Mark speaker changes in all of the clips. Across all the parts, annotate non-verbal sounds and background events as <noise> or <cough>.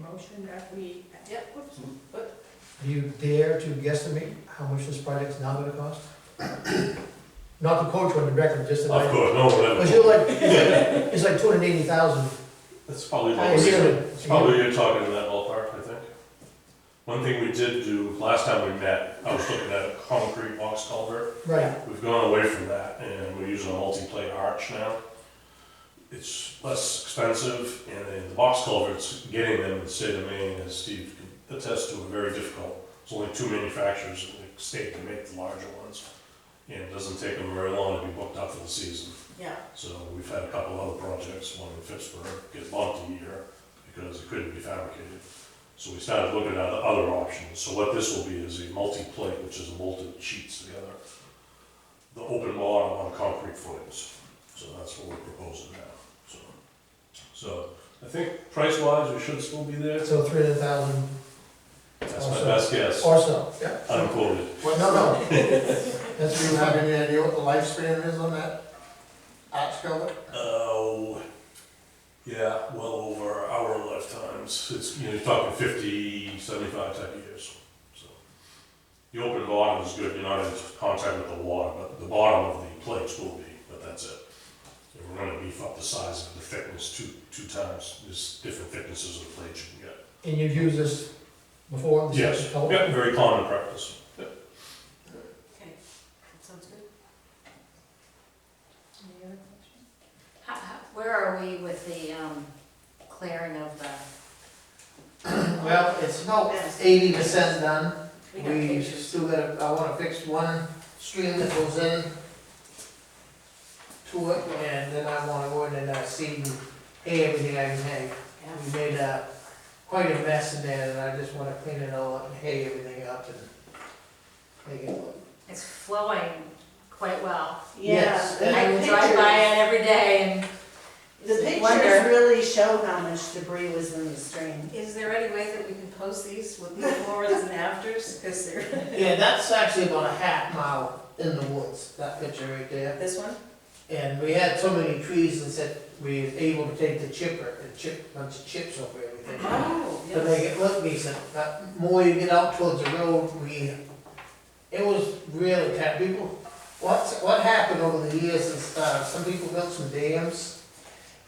Speaker 1: motion that we,
Speaker 2: Yep.
Speaker 1: Oops.
Speaker 3: Do you dare to guesstimate how much this project's now gonna cost? Not the coach one directly, just the.
Speaker 4: Of course, no,
Speaker 3: Cause
Speaker 4: whatever.
Speaker 3: you're like, it's like two hundred eighty thousand.
Speaker 4: That's probably
Speaker 3: I
Speaker 4: what
Speaker 3: assume
Speaker 4: we're,
Speaker 3: it.
Speaker 4: it's probably you're talking in that ballpark, I think. One thing we did do, last time we met, I was looking at a concrete box culvert.
Speaker 3: Right,
Speaker 4: We've gone away from that and we're using a multi-plate arch now. It's less expensive and then the box culverts, getting them in the state of Maine, as Steve can attest to, are very difficult. There's only two manufacturers in the state that make the larger ones. And it doesn't take them very long to be booked up for the season.
Speaker 2: Yeah,
Speaker 4: So we've had a couple other projects, one in Pittsburgh, get bumped a year because it couldn't be fabricated. So we started looking at other options. So what this will be is a multi-plate, which is molded sheets together. The open bottom on concrete footings. So that's what we're proposing now, so. So I think price-wise, we should still be there.
Speaker 3: so three hundred thousand
Speaker 4: That's my best guess,
Speaker 3: or so, yeah.
Speaker 4: unquoted.
Speaker 5: What,
Speaker 3: No,
Speaker 5: no, <laughs>
Speaker 3: no, that's
Speaker 5: do you have any idea what the lifespan is on that arch cover?
Speaker 4: Oh, yeah, well over our lifetimes. It's, you know, you're talking 50, 75 type of years. So The open bottom is good, you're not in contact with the water, but the bottom of the plates will be, but that's it. And We're gonna beef up the size of the thickness two, two times, there's different thicknesses of plates you can get.
Speaker 3: and you've used this before? this
Speaker 4: Yes,
Speaker 3: type of color?
Speaker 4: yeah, very common practice.
Speaker 2: okay, that sounds good.
Speaker 1: any other questions?
Speaker 2: How, how, where are we with the, um, clearing of the?
Speaker 5: Well, it's about
Speaker 2: Yes.
Speaker 5: eighty percent done.
Speaker 2: We got
Speaker 5: We
Speaker 2: pictures.
Speaker 5: still gotta, I wanna fix one stream that goes in to it, and then I wanna go in and uh, seed and hay everything I can hay.
Speaker 2: Yeah.
Speaker 5: We made, uh, quite a mess in there, and I just wanna clean it all up and hay everything up and make it look.
Speaker 2: It's flowing quite well.
Speaker 5: Yes,
Speaker 6: Yeah,
Speaker 5: and
Speaker 2: I
Speaker 6: the
Speaker 2: drive by
Speaker 6: pictures,
Speaker 2: it every day
Speaker 6: the
Speaker 2: and
Speaker 6: pictures
Speaker 2: wonder,
Speaker 6: really show how much debris was in the stream.
Speaker 2: is there any way that we can post these with the befores and afters? Cause they're,
Speaker 5: Yeah, that's actually about a half mile in the woods, that picture right there.
Speaker 2: this one?
Speaker 5: And we had so many trees and said we was able to take the chipper and chip a bunch of chips over everything.
Speaker 2: Oh,
Speaker 5: To make it look decent, but more you get out towards the road, we, it was really kind of people, what's, what happened over the years is, uh, some people built some dams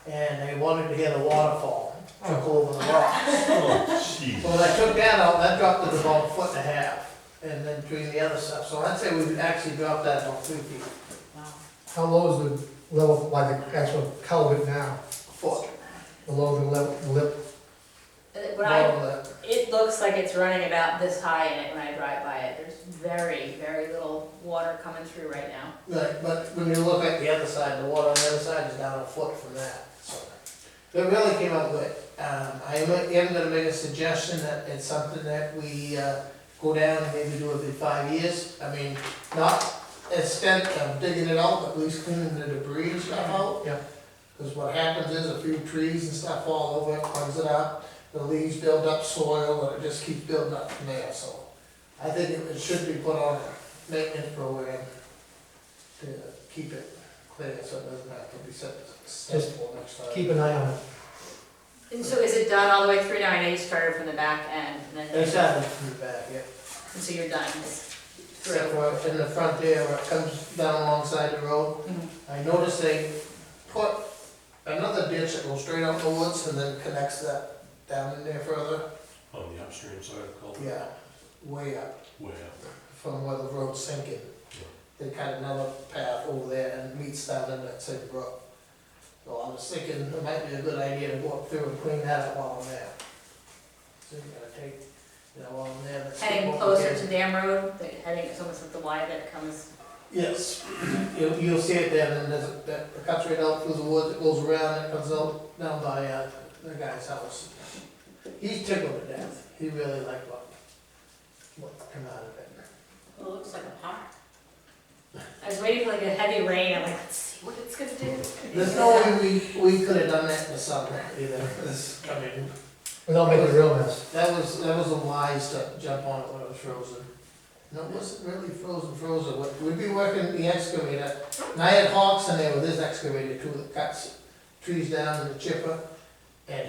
Speaker 5: and they wanted to get a waterfall, took over the rocks.
Speaker 4: Oh, gee.
Speaker 5: Well, I took that out, that dropped it about a foot and a half, and then between the other stuff, so I'd say we actually dropped that about three feet,
Speaker 2: Wow.
Speaker 3: How low is the level, like the actual culvert now,
Speaker 5: foot.
Speaker 3: below the level, the lip?
Speaker 2: Uh, When I,
Speaker 5: below that.
Speaker 2: it looks like it's running about this high in it when I drive by it. There's very, very little water coming through right now.
Speaker 5: Right, but when you look at the other side, the water on the other side is down a foot from that, so. It really came out good, um, I am, am gonna make a suggestion that it's something that we, uh, go down and maybe do it in five years, I mean, not extent of digging it out, but at least cleaning the debris and stuff out.
Speaker 3: Yeah.
Speaker 5: Cause what happens is a few trees and stuff fall over, it cleans it up, the leaves build up soil, and it just keeps building up from there, so. I think it it should be put on a maintenance program to keep it clear, so it doesn't have to be set,
Speaker 3: Just
Speaker 5: successful next time.
Speaker 3: Keep an eye on it.
Speaker 2: And so is it done all the way through now? I know you started from the back end and then,
Speaker 5: Exactly, from the back, yeah.
Speaker 2: and so you're done. It's
Speaker 5: Except for in the front there, where it comes down alongside the road,
Speaker 2: Mhm.
Speaker 5: I noticed they put another ditch that goes straight out the woods and then connects that down in there further,
Speaker 4: On the upstream side of the culvert,
Speaker 5: yeah, way up
Speaker 4: way up.
Speaker 5: from where the road's sinking. They cut another path over there and meets down in that same brook. So I was thinking it might be a good idea to walk through and clean that up while I'm there. So you gotta take, you know, while I'm there. let's keep
Speaker 2: Heading
Speaker 5: walking.
Speaker 2: closer to Dam Road, the- heading, it's almost like the Y that comes,
Speaker 5: Yes, you'll, you'll see it then, and there's, a- that, it cuts right out through the woods, it goes around, it comes out down by, uh, the guy's house. He's tickled to death, he really liked what, what came out of it.
Speaker 2: well, it looks like a park. I was waiting for like a heavy rain, I'm like, let's see what it's gonna do.
Speaker 5: There's no way we, we could have done that in the summer either, This- I mean,
Speaker 3: Without making a real mess.
Speaker 5: that was, that was a wise to jump on it when it was frozen. No, it wasn't really frozen, frozen, We- we'd be working the excavator, and I had hawks in there with this excavator too, that cuts trees down and the chipper,